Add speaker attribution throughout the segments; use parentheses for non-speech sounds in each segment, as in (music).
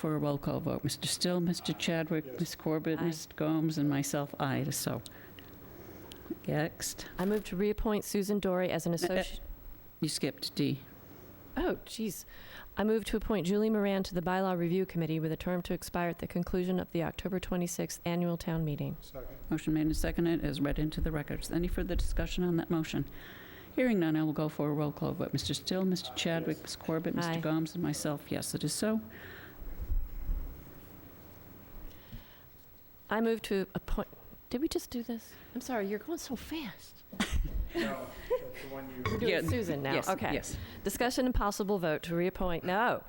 Speaker 1: for a roll call vote. Mr. Still, Mr. Chadwick, Ms. Corbett,
Speaker 2: Aye.
Speaker 1: Ms. Gomes, and myself, aye, so. Next,
Speaker 2: I move to reappoint Susan Dory as an
Speaker 1: uh,
Speaker 2: associate.
Speaker 1: you skipped D.
Speaker 2: Oh, jeez. I move to appoint Julie Moran to the Bylaw Review Committee with a term to expire at the conclusion of the October 26th annual town meeting.
Speaker 3: Second.
Speaker 1: Motion made and seconded as read into the records. Any further discussion on that motion? Hearing none, I will go for a roll call vote. Mr. Still, Mr. Chadwick, Ms. Corbett,
Speaker 2: Aye.
Speaker 1: Mr. Gomes, and myself, yes, it is so.
Speaker 2: I move to appoint, did we just do this? I'm sorry, you're going so fast.
Speaker 3: No, that's the one you.
Speaker 2: We're doing
Speaker 1: Yeah,
Speaker 2: Susan now,
Speaker 1: Yes,
Speaker 2: okay.
Speaker 1: Yes.
Speaker 2: Discussion and possible vote to reappoint, no.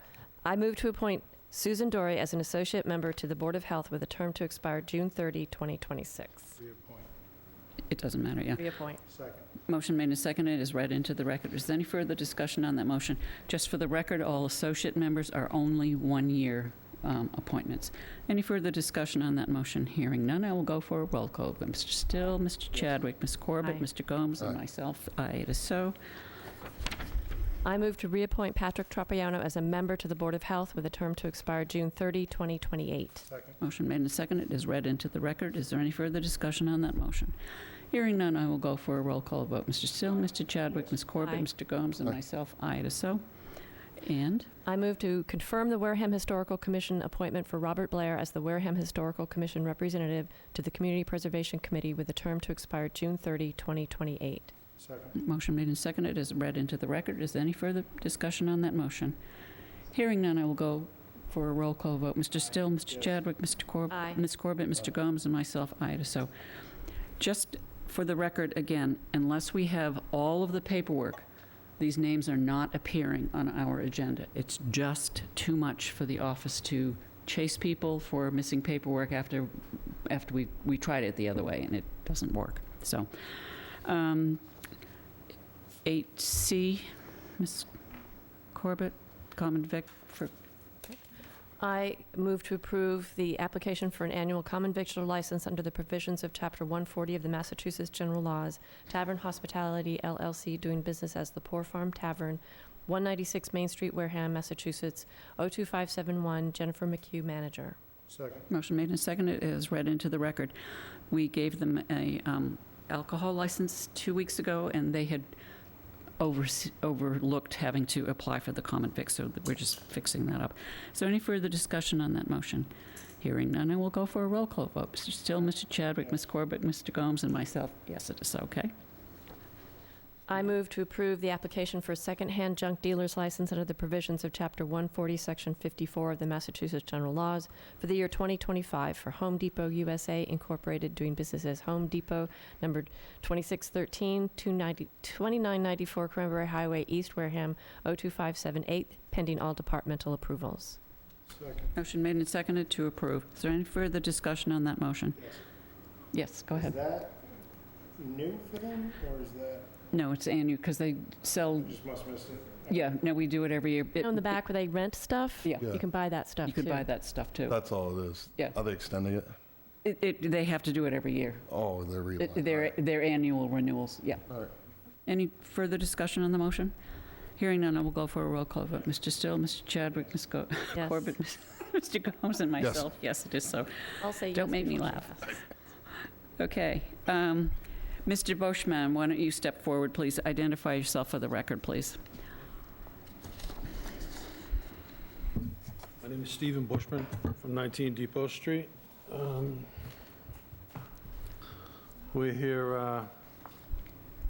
Speaker 2: I move to appoint Susan Dory as an associate member to the Board of Health with a term to expire June 30, 2026.
Speaker 3: Reappoint.
Speaker 1: It doesn't matter, yeah.
Speaker 2: Reappoint.
Speaker 3: Second.
Speaker 1: Motion made and seconded is read into the record. Is there any further discussion on that motion? Just for the record, all associate members are only one-year um, appointments. Any further discussion on that motion? Hearing none, I will go for a roll call. Mr. Still, Mr. Chadwick, Ms. Corbett,
Speaker 2: Aye.
Speaker 1: Mr. Gomes, and
Speaker 4: Aye.
Speaker 1: myself, aye, it is so.
Speaker 2: I move to reappoint Patrick Tropiano as a member to the Board of Health with a term to expire June 30, 2028.
Speaker 3: Second.
Speaker 1: Motion made and seconded is read into the record. Is there any further discussion on that motion? Hearing none, I will go for a roll call vote. Mr. Still, Mr. Chadwick, Ms. Corbett,
Speaker 2: Aye.
Speaker 1: Mr. Gomes, and
Speaker 4: Aye.
Speaker 1: myself, aye, it is so. And
Speaker 2: I move to confirm the Wareham Historical Commission appointment for Robert Blair as the Wareham Historical Commission representative to the Community Preservation Committee with a term to expire June 30, 2028.
Speaker 3: Second.
Speaker 1: Motion made and seconded is read into the record. Is there any further discussion on that motion? Hearing none, I will go for a roll call vote. Mr. Still, Mr.
Speaker 3: Yes.
Speaker 1: Chadwick, Mr. Corbett.
Speaker 2: Aye.
Speaker 1: Ms. Corbett, Mr. Gomes, and myself, aye, it is so. Just for the record, again, unless we have all of the paperwork, these names are not appearing on our agenda. It's just too much for the office to chase people for missing paperwork after, after we, we tried it the other way, and it doesn't work. So, um, 8C, Ms. Corbett, Common Vic for,
Speaker 2: I move to approve the application for an annual common victular license under the provisions of Chapter 140 of the Massachusetts General Laws, Tavern Hospitality LLC, doing business as the Poor Farm Tavern, 196 Main Street, Wareham, Massachusetts, 02571, Jennifer McHugh, manager.
Speaker 3: Second.
Speaker 1: motion made and seconded is read into the record. We gave them a um, alcohol license two weeks ago, and they had overse- overlooked having to apply for the common vic, so we're just fixing that up. Is there any further discussion on that motion? Hearing none, I will go for a roll call vote. Mr. Still, Mr. Chadwick, Ms. Corbett, Mr. Gomes, and myself, yes, it is okay.
Speaker 2: I move to approve the application for a secondhand junk dealer's license under the provisions of Chapter 140, Section 54 of the Massachusetts General Laws for the year 2025 for Home Depot USA Incorporated, doing business as Home Depot, number 2613, 290 2994 Cranberry Highway, East Wareham, 02578, pending all departmental approvals.
Speaker 3: Second.
Speaker 1: Motion made and seconded to approve. Is there any further discussion on that motion?
Speaker 3: Yes.
Speaker 1: Yes, go ahead.
Speaker 3: Is that new for them, or is that,
Speaker 1: No, it's annual, because they sell,
Speaker 3: I just must miss it?
Speaker 1: yeah, no, we do it every year. It-
Speaker 2: You know, in the back where they rent stuff,
Speaker 1: Yeah,
Speaker 2: you can buy that stuff,
Speaker 1: you could
Speaker 2: too.
Speaker 1: buy that stuff, too.
Speaker 4: That's all it is.
Speaker 1: Yeah.
Speaker 4: Are they extending it?
Speaker 1: It, it, they have to do it every year.
Speaker 4: Oh, they're
Speaker 1: It-
Speaker 4: realizing.
Speaker 1: Their, their annual renewals, yeah.
Speaker 4: All right.
Speaker 1: Any further discussion on the motion? Hearing none, I will go for a roll call vote. Mr. Still, Mr. Chadwick, Ms. Go-
Speaker 2: Yes.
Speaker 1: Corbett, (laughs) Mr. Gomes, and myself. Yes, it is so.
Speaker 2: I'll say
Speaker 1: Don't
Speaker 2: yes
Speaker 1: make me
Speaker 2: before she
Speaker 1: laugh.
Speaker 2: passes.
Speaker 1: Okay. um, Mr. Boschman, why don't you step forward, please? Identify yourself for the record, please.
Speaker 5: My name is Stephen Bushman from 19 Depot Street. Um, We're here uh,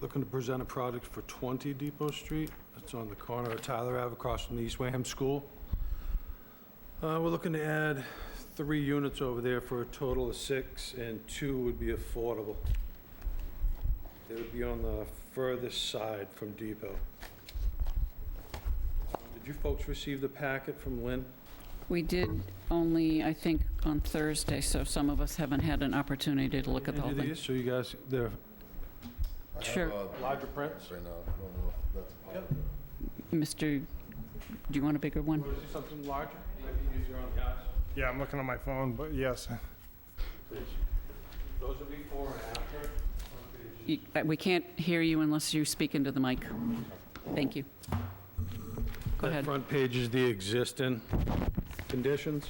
Speaker 5: looking to present a product for 20 Depot Street. It's on the corner of Tyler Ave across from the East Wareham School. Uh, We're looking to add three units over there for a total of six, and two would be affordable. They would be on the furthest side from Depot. Did you folks receive the packet from Lynn?
Speaker 1: We did only, I think, on Thursday, so some of us haven't had an opportunity to look at the whole
Speaker 5: Any of
Speaker 1: thing.
Speaker 5: these? So you guys, they're
Speaker 4: I have,
Speaker 1: Sure.
Speaker 4: uh,
Speaker 5: larger prints?
Speaker 4: Right now, I don't know if that's.
Speaker 1: Mr., do you want a bigger one?
Speaker 5: Something larger? Might be easier on the eyes.
Speaker 3: Yeah, I'm looking on my phone, but yes.
Speaker 5: Those are before and after.
Speaker 1: You- uh, We can't hear you unless you speak into the mic. Thank you. Go
Speaker 5: That
Speaker 1: ahead.
Speaker 5: front page is the existing. conditions?